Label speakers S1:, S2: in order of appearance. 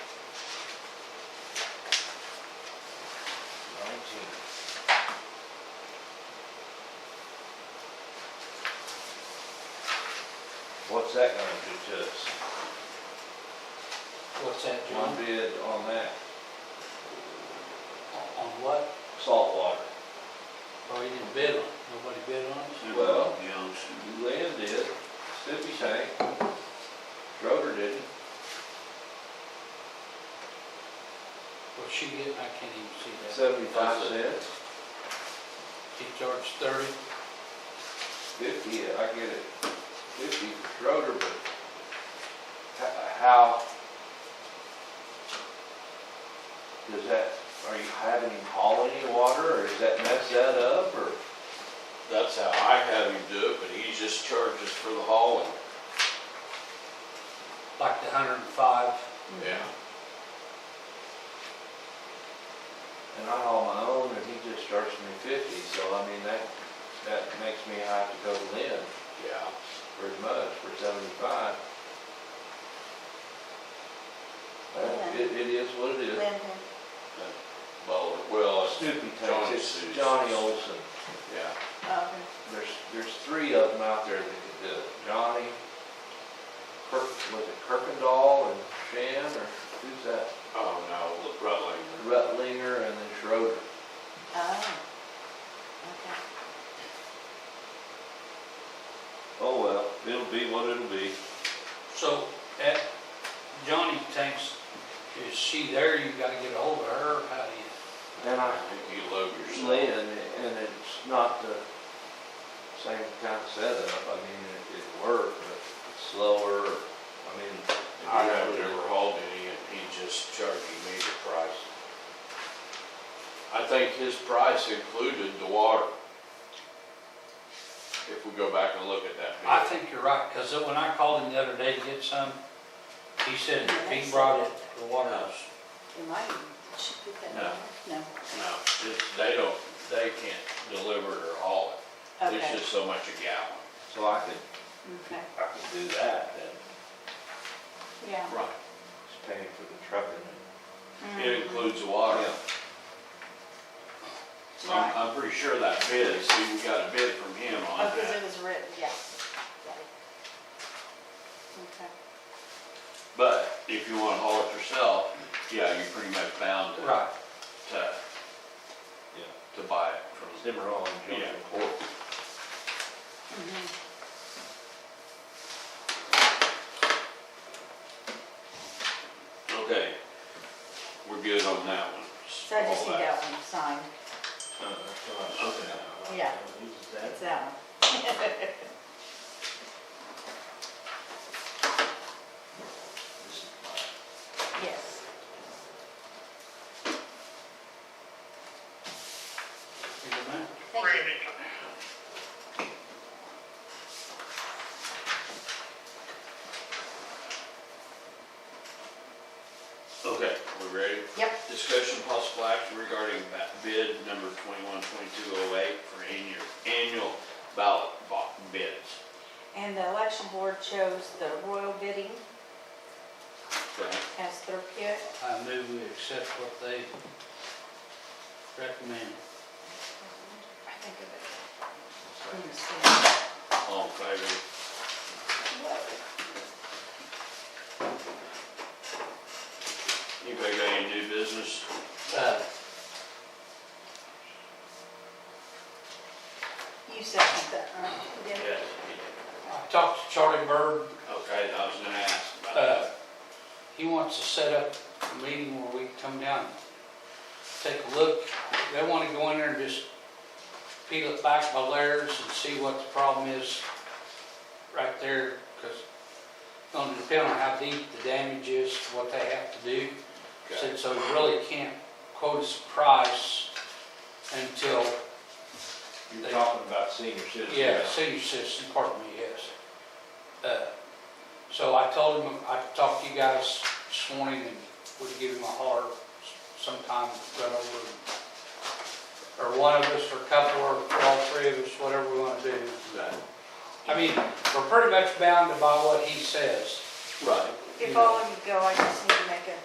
S1: What's that gonna do to us?
S2: What's that,
S1: One
S2: John?
S1: bid on that,
S2: On what?
S1: salt water.
S2: Oh, you didn't bid on it. Nobody bid on it?
S1: Well-
S3: Youngster.
S1: Lynn did, Mississippi Tank, Schroeder didn't.
S2: What's she getting? I can't even see that.
S1: Seventy-five cents,
S2: She charged thirty.
S1: fifty, I get it, fifty for Schroeder, but h- how does that, are you having him haul any water, or does that mess that up, or?
S3: That's how I have him do it, but he just charges for the hauling.
S2: like the hundred and five.
S4: Mm-hmm.
S3: Yeah.
S1: And I haul my own, and he just charges me fifty, so I mean, that, that makes me have to go to Lynn
S3: Yeah.
S1: for as much, for seventy-five. Well, It, it is what it is.
S4: Lynn,
S3: Well, well, it's-
S1: Snoopy
S3: Johnny
S1: takes it,
S3: Suits.
S1: Johnny Olson.
S3: yeah.
S4: uh,
S1: There's, there's three of them out there that can do it. Johnny, Kirk, was it Kirkendall and Shan, or who's that?
S3: Oh, no, look, Rutland.
S1: Rutlinger and then Schroeder.
S4: oh, okay.
S1: Oh, well, it'll be what it'll be.
S2: So at Johnny thinks, is she there? You gotta get ahold of her. How do you?
S1: And I,
S3: I think you love yourself.
S1: Lynn, and it's not the same kind of setup. I mean, it, it worked, but it's slower. I mean. it is
S3: I have
S1: what it is.
S3: never hauled any, and he just charging me the price. I think his price included the water. If we go back and look at that.
S2: I
S3: bid.
S2: think you're right, because when I called him the other day to get some, he said if he brought it, the water was,
S4: It might, should put that
S3: No.
S4: in there. No,
S3: No, it's- they don't, they can't deliver it or haul it. There's
S4: okay,
S3: just so much a gallon.
S1: So I could,
S4: okay,
S1: I could do that then.
S4: yeah.
S3: Right.
S1: Just paying for the trucking and.
S3: It includes the
S1: Oh,
S3: water. I'm,
S4: Right,
S3: I'm pretty sure that bid, see, we got a bid from him on
S4: oh, because it
S3: that.
S4: was written, yeah. Got it. Okay.
S3: But if you wanna haul it yourself, yeah, you're pretty much bound to,
S2: right.
S3: to,
S1: Yeah.
S3: to buy it from.
S1: Cimarron, Johnson,
S3: Yeah.
S1: Corp.
S4: Mhm.
S3: Okay, we're good on that one.
S4: So I just
S3: All
S4: need that one signed,
S1: Oh,
S4: Yeah. it's that one. Yes,
S2: Here's a minute.
S4: thank you.
S3: Okay, we ready?
S4: Yep,
S3: Discussion possible action regarding ba- bid number twenty-one, twenty-two oh eight for annual, annual ballot bo- bids.
S4: and the election board chose the royal bidding
S3: Okay,
S4: as their pick.
S2: I knew we accept what they recommend.
S4: I think of it.
S3: all in favor? Anybody got any new business?
S2: Uh,
S4: You said that, right? You did?
S2: I talked to Charlie Bird
S3: Okay, I was gonna ask about
S2: Uh,
S3: that.
S2: He wants to set up a meeting where we can come down, and take a look. They want to go in there and just peel it back by layers and see what the problem is right there, because it's going to depend on how deep the damage is, what they have to do.
S3: Okay,
S2: Said, So we really can't quote us a price until,
S1: You're talking about senior citizens.
S2: yeah, city system, pardon me, yes. Uh, So I told him, I talked to you guys this morning and would give him a holler sometime, run over. Or one of us, or a couple, or all three of us, whatever we want to do.
S3: Right.
S2: I mean, we're pretty much bound to by what he says.
S3: Right.
S4: If all of you go, I just need to make a